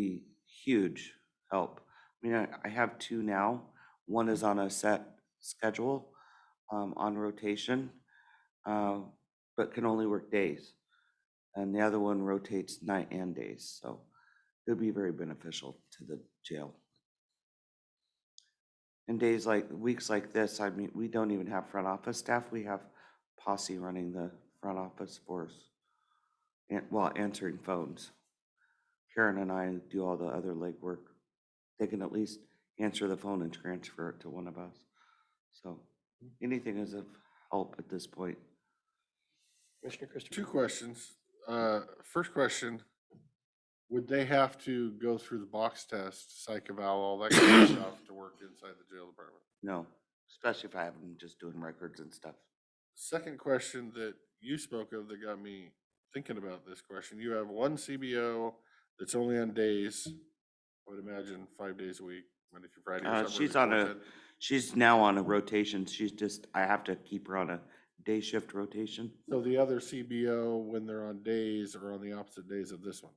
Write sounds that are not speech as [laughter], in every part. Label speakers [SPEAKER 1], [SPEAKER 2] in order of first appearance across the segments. [SPEAKER 1] be huge help. I mean, I, I have two now. One is on a set schedule, um, on rotation, uh, but can only work days. And the other one rotates night and days, so it'd be very beneficial to the jail. And days like, weeks like this, I mean, we don't even have front office staff. We have posse running the front office for us. And, well, answering phones. Karen and I do all the other legwork. They can at least answer the phone and transfer it to one of us. So
[SPEAKER 2] Hmm.
[SPEAKER 1] anything is of help at this point.
[SPEAKER 3] Commissioner
[SPEAKER 2] Two
[SPEAKER 3] Christopher?
[SPEAKER 2] questions. Uh, First question, would they have to go through the box test, psych eval, all that kind of
[SPEAKER 1] [clears throat]
[SPEAKER 2] stuff to work inside the jail department?
[SPEAKER 1] No, especially if I have them just doing records and stuff.
[SPEAKER 2] Second question that you spoke of that got me thinking about this question, you have one CBO that's only on days, I would imagine five days a week, Monday through Friday. or
[SPEAKER 1] Uh,
[SPEAKER 2] somewhere
[SPEAKER 1] she's on a-
[SPEAKER 2] between that.
[SPEAKER 1] She's now on a rotation. She's just, I have to keep her on a day shift rotation.
[SPEAKER 2] So the other CBO, when they're on days, are on the opposite days of this one?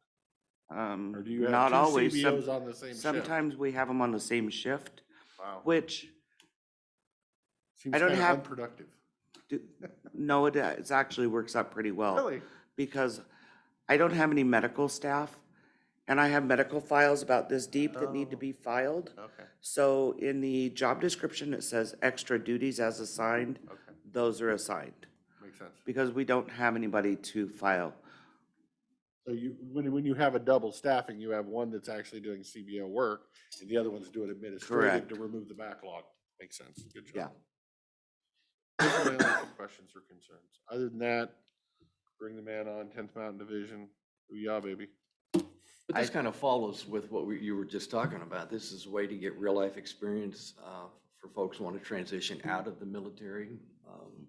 [SPEAKER 2] Or
[SPEAKER 1] Um,
[SPEAKER 2] do you have
[SPEAKER 1] not
[SPEAKER 2] two
[SPEAKER 1] always. Some-
[SPEAKER 2] CBOs on the same shift?
[SPEAKER 1] Sometimes we have them on the same shift,
[SPEAKER 2] Wow.
[SPEAKER 1] which,
[SPEAKER 2] Seems
[SPEAKER 1] I don't
[SPEAKER 2] kinda
[SPEAKER 1] have-
[SPEAKER 2] Unproductive.
[SPEAKER 1] do- no, it it actually works out pretty well.
[SPEAKER 2] Really?
[SPEAKER 1] because I don't have any medical staff, and I have medical files about this deep that need to
[SPEAKER 2] Oh.
[SPEAKER 1] be filed.
[SPEAKER 2] Okay,
[SPEAKER 1] So in the job description, it says extra duties as assigned,
[SPEAKER 2] okay.
[SPEAKER 1] those are assigned,
[SPEAKER 2] Makes sense.
[SPEAKER 1] because we don't have anybody to file.
[SPEAKER 2] So you, when, when you have a double staffing, you have one that's actually doing CBO work and the other one's doing administrative to
[SPEAKER 1] Correct.
[SPEAKER 2] remove the backlog. Makes sense. Good
[SPEAKER 1] Yeah.
[SPEAKER 2] job. Those are my only two Questions or concerns. Other than that, bring the man on, tenth mountain division. Ooh-yah, baby.
[SPEAKER 3] But this kind of follows with what we- you were just talking about. This is a way to get real-life experience uh, for folks who want to transition out of the military. um,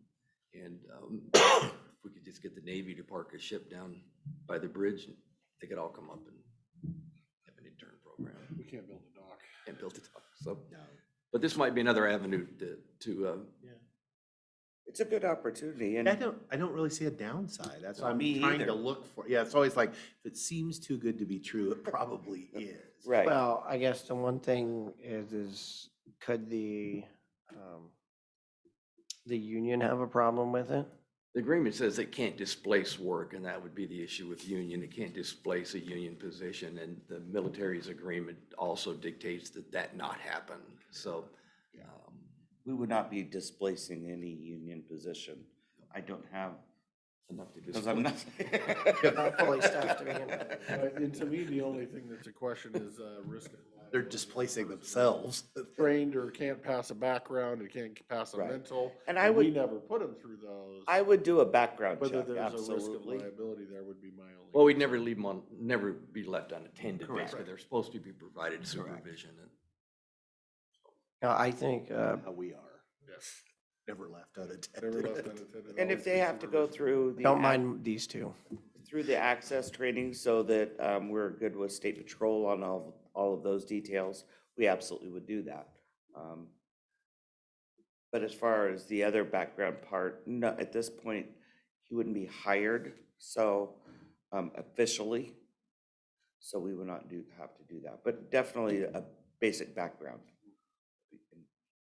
[SPEAKER 3] And um, if we could just get the Navy to park a ship down by the bridge, they could all come up and have an intern program
[SPEAKER 2] We can't build a dock.
[SPEAKER 3] and build it up, so. But this might be another avenue to, to, uh,
[SPEAKER 1] It's a good opportunity,
[SPEAKER 4] I
[SPEAKER 1] and
[SPEAKER 4] don't, I don't really see a downside. That's what I'm
[SPEAKER 1] Me
[SPEAKER 4] trying
[SPEAKER 1] either.
[SPEAKER 4] to look for. Yeah, it's always like, if it seems too good to be true, it
[SPEAKER 1] [laughs]
[SPEAKER 4] probably is.
[SPEAKER 1] Right.
[SPEAKER 5] Well, I guess the one thing is, is could the, um, the union have a problem with it?
[SPEAKER 3] the agreement says it can't displace work, and that would be the issue with union. It can't displace a union position, and the military's agreement also dictates that that not happen, so. um,
[SPEAKER 1] we would not be displacing any union position. I don't have,
[SPEAKER 3] Enough to
[SPEAKER 1] because I'm not.
[SPEAKER 3] displace.
[SPEAKER 5] Not fully staffed to begin with.
[SPEAKER 2] [laughs] But- And to me, the only thing that's a question is, uh, risk. and
[SPEAKER 4] They're
[SPEAKER 2] liability.
[SPEAKER 4] displacing themselves.
[SPEAKER 2] [laughs] Trained or can't pass a background, or can't pass a
[SPEAKER 1] Right.
[SPEAKER 2] mental.
[SPEAKER 1] And I
[SPEAKER 2] We
[SPEAKER 1] would,
[SPEAKER 2] never put them through those.
[SPEAKER 1] [laughs] I would do a background
[SPEAKER 2] Whether
[SPEAKER 1] check,
[SPEAKER 2] there's a risk of
[SPEAKER 1] absolutely.
[SPEAKER 2] liability there would be my only.
[SPEAKER 3] Well, we'd never leave them on, never be left unattended,
[SPEAKER 4] Correct.
[SPEAKER 3] basically. They're supposed to be provided supervision, and
[SPEAKER 5] No, I think, uh,
[SPEAKER 4] How we are,
[SPEAKER 2] Yes.
[SPEAKER 4] never
[SPEAKER 2] [laughs]
[SPEAKER 4] left
[SPEAKER 2] Never left
[SPEAKER 4] unattended.
[SPEAKER 2] unattended.
[SPEAKER 1] And
[SPEAKER 2] always
[SPEAKER 1] if they
[SPEAKER 2] been
[SPEAKER 1] have to go
[SPEAKER 2] supervision.
[SPEAKER 1] through the.
[SPEAKER 5] don't
[SPEAKER 1] ac-
[SPEAKER 5] mind these two.
[SPEAKER 1] through the access training so that um, we're good with state patrol on all, all of those details, we absolutely would do that. Um, But as far as the other background part, no, at this point, he wouldn't be hired, so um, officially. So we would not do, have to do that, but definitely a basic background can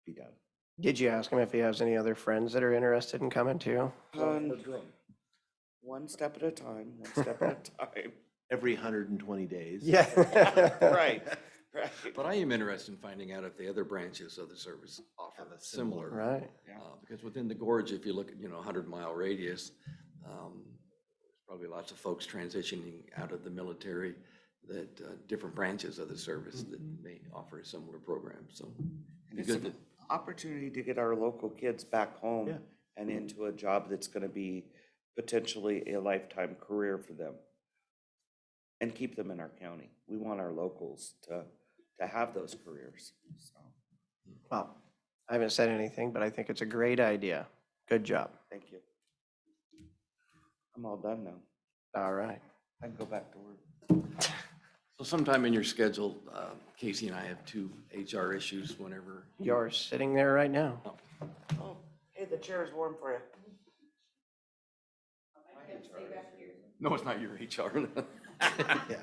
[SPEAKER 1] be done.
[SPEAKER 5] Did you ask him if he has any other friends that are interested in coming too?
[SPEAKER 1] Um, One step at a time, one step at [laughs] a time.
[SPEAKER 4] Every hundred and twenty days.
[SPEAKER 5] Yeah.
[SPEAKER 1] Right, right.
[SPEAKER 3] But I am interested in finding out if the other branches of the service offer
[SPEAKER 4] Have a similar-
[SPEAKER 3] similar.
[SPEAKER 5] [laughs] Right.
[SPEAKER 1] Yeah.
[SPEAKER 3] uh, Because within the gorge, if you look at, you know, a hundred mile radius, um, there's probably lots of folks transitioning out of the military that, uh, different branches of the service that may offer a similar program, so.
[SPEAKER 1] Mm-hmm. And
[SPEAKER 3] be
[SPEAKER 1] it's
[SPEAKER 3] good
[SPEAKER 1] an
[SPEAKER 3] to-
[SPEAKER 1] opportunity to get our local kids back home
[SPEAKER 4] Yeah.
[SPEAKER 1] and into a job that's gonna be potentially a lifetime career for them. And keep them in our county. We want our locals to, to have those careers, so,
[SPEAKER 5] Well, I haven't said anything, but I think it's a great idea. Good job.
[SPEAKER 1] thank you. I'm all done now.
[SPEAKER 5] All right.
[SPEAKER 1] I can go back to work.
[SPEAKER 3] So sometime in your schedule, uh, Casey and I have two HR issues whenever.
[SPEAKER 5] You're sitting there right now.
[SPEAKER 1] Oh, hey, the chair is warm for you.
[SPEAKER 3] No, it's not your HR. [laughs]
[SPEAKER 4] Yeah.